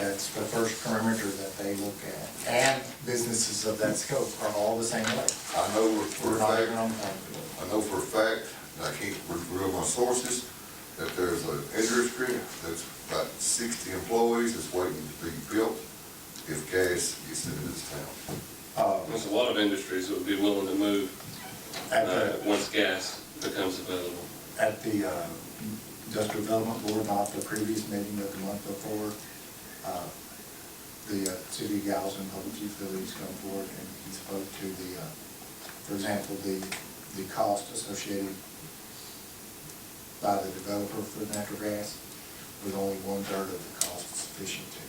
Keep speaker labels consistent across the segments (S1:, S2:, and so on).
S1: that's the first perimeter that they look at. And businesses of that scope are all the same way.
S2: I know for
S1: We're
S2: a
S1: not even
S2: fact,
S1: on the
S2: I know for a fact, and I can't reveal my sources, that there's an industry that's about sixty employees that's waiting to be built if gas gets into this town.
S1: Uh,
S3: There's a lot of industries that would be willing to move
S1: At
S3: uh,
S1: the,
S3: once gas becomes available.
S1: at the uh, industrial development board, not the previous meeting, but the month before, uh, the uh, city gals and public utilities come forward and he spoke to the, uh, for example, the, the cost associated by the developer for natural gas was only one-third of the cost sufficient to,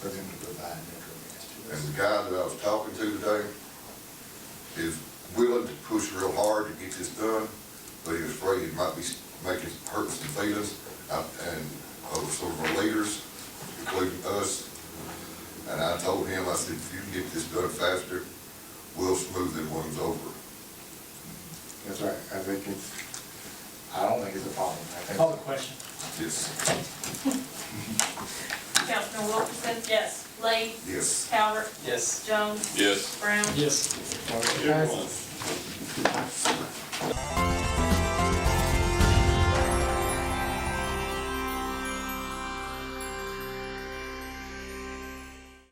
S1: for them to provide natural gas to
S2: And
S1: us.
S2: the guy that I was talking to today is willing to push real hard to get this done, but he was afraid it might be making, hurting some feelings out and of some of our leaders, including us. And I told him, I said, if you can get this done faster, we'll smooth them ones over.
S1: That's right, I think it's, I don't think it's a problem. I think-
S4: Call the question.
S2: Yes,
S5: Councilman Wilkerson? Yes. Lee?
S2: yes.
S5: Calvert?
S4: Yes.
S5: Jones?
S3: Yes.
S5: Brown?
S4: Yes.
S1: Motion
S3: Good
S1: passes.
S3: one.